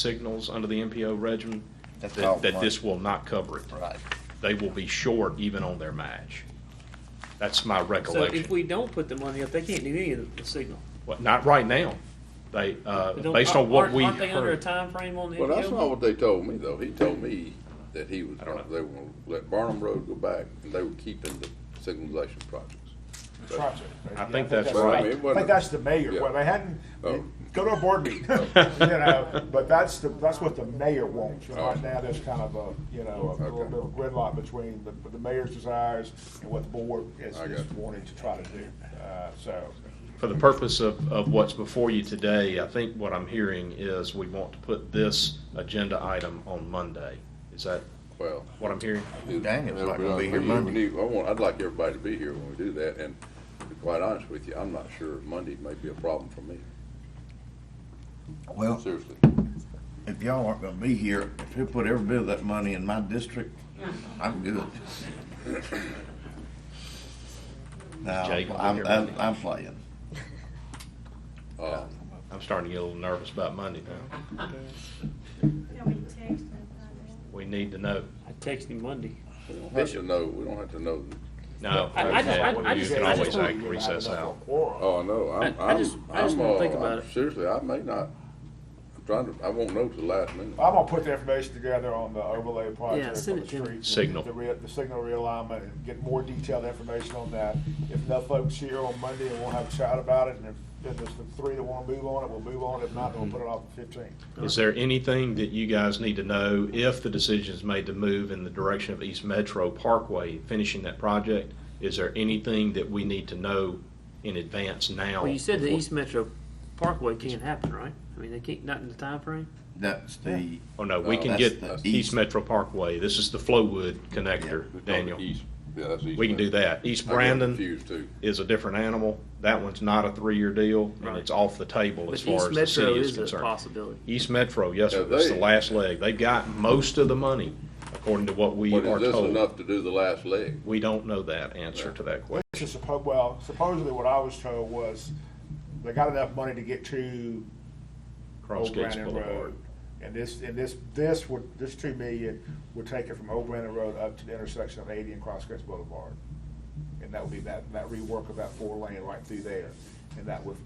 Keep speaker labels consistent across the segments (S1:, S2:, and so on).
S1: signals under the MPO regimen,
S2: That's
S1: that,
S2: called
S1: that
S2: money.
S1: this will not cover it.
S2: Right.
S1: They will be short even on their match. That's my
S3: So if
S1: recollection.
S3: we don't put the money up, they can't do any of the signal.
S1: Well, Not right now. They, uh,
S3: But don't-
S1: based on what
S3: aren't-
S1: we
S3: Aren't they under a
S1: heard.
S3: timeframe on the
S4: Well, that's not
S3: MPO?
S4: what they told me, though. He told me that he was,
S1: I don't know.
S4: they were gonna let Barnum Road go back, and they were keeping the signalization projects.
S5: project.
S1: I think that's
S4: right.
S5: I think that's the mayor.
S4: Yeah.
S5: Well, they hadn't,
S4: Oh.
S5: go to a board meeting, you know, but that's the, that's what the mayor wants. And Right now, there's kind of a, you know, a little
S4: Oh. Okay.
S5: bit of gridlock between the, the mayor's desires and what the board is,
S4: I
S5: is
S4: got you.
S5: wanting to try to do. Uh, so,
S1: For the purpose of, of what's before you today, I think what I'm hearing is we want to put this agenda item on Monday. Is that
S4: Well.
S1: what I'm hearing?
S2: Daniel's not gonna be here
S4: We
S2: Monday.
S4: need- I want, I'd like everybody to be here when we do that, and to be quite honest with you, I'm not sure Monday may be a problem for me,
S2: Well,
S4: seriously.
S2: if y'all aren't gonna be here, if you put every bit of that money in my district, I'm good. No,
S1: Jake will be
S2: I'm,
S1: here
S2: I'm,
S1: Monday.
S2: I'm playing.
S4: Uh,
S1: I'm starting to get a little nervous about Monday now.
S6: Yeah, we text and find out.
S1: We need to know.
S3: I text him Monday.
S4: We don't have to know, we don't have to know,
S1: No,
S3: I- I just- I- I
S1: you
S3: just-
S1: can
S3: I just
S1: always
S3: wanna-
S1: act recess out.
S5: Quorum.
S4: oh, no, I'm,
S3: I- I
S4: I'm,
S3: just- I just
S4: I'm,
S3: wanna
S4: uh,
S3: think about
S4: I'm-
S3: it.
S4: seriously, I may not, I'm trying to, I won't know till the last minute.
S5: I'm gonna put the information together on the overlay
S3: Yeah,
S5: project for
S3: send
S5: the
S3: it to me.
S5: streets.
S1: Signal.
S5: The, rea- the signal realignment, and get more detailed information on that. If enough folks here on Monday, we'll have a chat about it, and if, if there's the three that wanna move on it, we'll move on. If not, then we'll put it off the fifteenth.
S1: Is there anything that you guys need to know if the decision is made to move in the direction of East Metro Parkway, finishing that project? Is there anything that we need to know in advance now?
S3: Well, you said the East Metro Parkway can't happen, right? I mean, they can't, not in the timeframe?
S2: That's the,
S1: Oh, no, we
S4: No,
S1: can
S2: that's
S1: get
S2: the
S1: East
S2: east.
S1: Metro Parkway. This is the Flowwood connector,
S4: We're talking
S1: Daniel.
S4: east. Yeah, that's east.
S1: We can do that. East
S4: I get
S1: Brandon
S4: confused, too.
S1: is a different animal. That one's not a three-year deal, and
S3: Right.
S1: it's off the table
S3: But
S1: as far
S3: East
S1: as the
S3: Metro
S1: city is
S3: is a
S1: concerned.
S3: possibility.
S1: East Metro, yes, sir.
S4: Now,
S1: That's the
S4: they-
S1: last leg. They've got most of the money, according to what we
S4: But
S1: are
S4: is this
S1: told.
S4: enough to do the last leg?
S1: We don't know that answer to that question.
S5: Which is suppo- well, supposedly what I was told was they got enough money to get to
S1: Cross
S5: Old
S1: Gates
S5: Brandon
S1: Boulevard.
S5: Road. And this, and this, this would, this two million would take it from Old Brandon Road up to the intersection of eighty and Crosscuts Boulevard. And that would be that, that rework of that four lane right through there. And that would,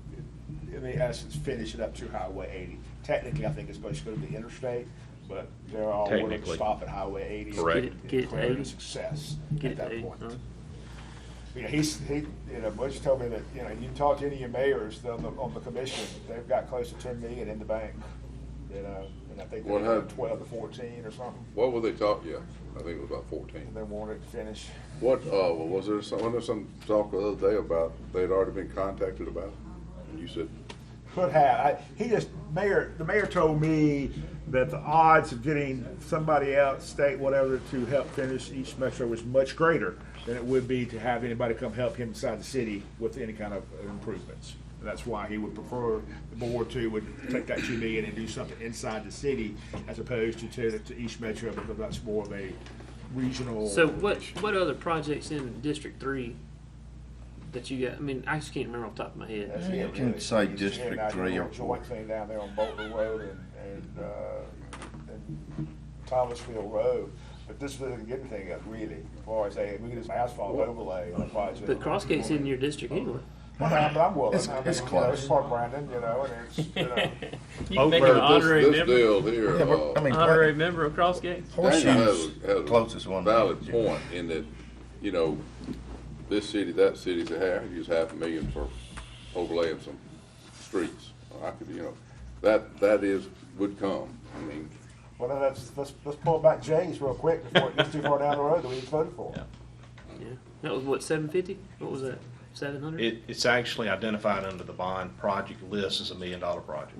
S5: in the essence, finish it up to Highway eighty. Technically, I think it's supposed to go to the interstate, but they're all willing to
S1: Technically.
S5: stop at Highway eighty. and
S1: Correct.
S3: Get it- get it to
S5: declare it a
S3: 80.
S5: Success
S3: Get
S5: at
S3: it,
S5: that
S3: Dave,
S5: point.
S3: huh?
S5: Yeah, he's, he, you know, Butch told me that, you know, you talk to any of your mayors on the, on the commission, they've got close to ten million in the bank. You know, and I think they
S4: What
S5: have
S4: happened?
S5: twelve to fourteen or something,
S4: What were they talking, yeah, I think it was about fourteen.
S5: and they want it finished.
S4: What, uh, well, was there some, wasn't there some talk the other day about they'd already been contacted about it? And you said,
S5: Could have, I, he just, mayor, the mayor told me that the odds of getting somebody out, state, whatever, to help finish East Metro was much greater than it would be to have anybody come help him inside the city with any kind of improvements. And that's why he would prefer the board to would take that two million and do something inside the city as opposed to to, to East Metro because that's more of a regional.
S3: So what, what other projects in District Three that you got, I mean, I just can't remember off the top of my head.
S5: That's it,
S2: You can
S5: really.
S2: say
S5: It's here
S2: District
S5: now,
S2: Three
S5: you
S2: or
S5: know, Joint thing down there on Bolton Road and, and, uh, and Thomasville Road, but this doesn't get anything up really, as far as, hey, we can just asphalt overlay on the project.
S3: But Crossgate's in your district anyway.
S5: Well, I'm, I'm willing,
S2: It's-
S5: I mean,
S2: it's
S5: you know, it's
S2: close.
S5: Park Brandon, you know, and it's, you know.
S3: You
S1: Oh,
S3: can make
S1: but
S3: an
S1: this-
S3: honorary
S4: this, this
S3: member,
S4: deal here,
S2: yeah, but, I
S4: uh,
S2: mean,
S3: honorary
S2: what-
S3: member of Crossgate.
S4: Daniel has,
S2: horseshoes,
S4: a- has
S2: closest
S4: a
S2: one.
S4: valid point in that, you know, this city, that city, they have, use half a million for overlaying some streets. I could, you know, that, that is, would come, I mean,
S5: Well, then let's, let's, let's pull back Jay's real quick before it gets too far down the road that we voted for.
S3: Yeah, that was what, seven fifty? What was that, seven hundred?
S1: It, it's actually identified under the bond project list as a million-dollar project.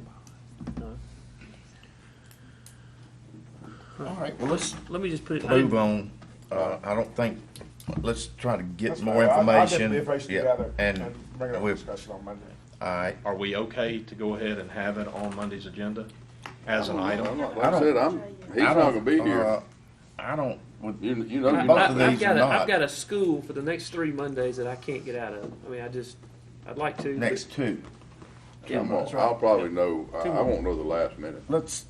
S2: All right, well, let's
S3: Let me just put it. I
S2: move
S3: didn't-
S2: on. Uh, I don't think, let's try to get
S5: That's
S2: more
S5: fine. I'll-
S2: information.
S5: I'll get the information
S2: Yeah,
S5: together
S2: And
S5: Bring it up for
S2: we,
S5: discussion on Monday.
S2: all right,
S1: Are we okay to go ahead and have it on Monday's agenda as an
S4: I'm
S1: item?
S4: not-
S2: I
S4: like I
S2: don't-
S4: said, I'm, he's
S2: I
S4: not
S2: don't-
S4: gonna be here.
S2: uh, I don't, would-
S4: You, you know,
S3: I-
S4: you're
S2: both
S3: I-
S4: not
S2: of
S3: I've
S2: these
S3: got
S2: are
S3: a- I've
S2: not.
S3: got a school for the next three Mondays that I can't get out of. I mean, I just, I'd like to. but-
S2: next two.
S4: I'm gonna- I'll probably know, I, I won't know the last minute.
S2: Let's,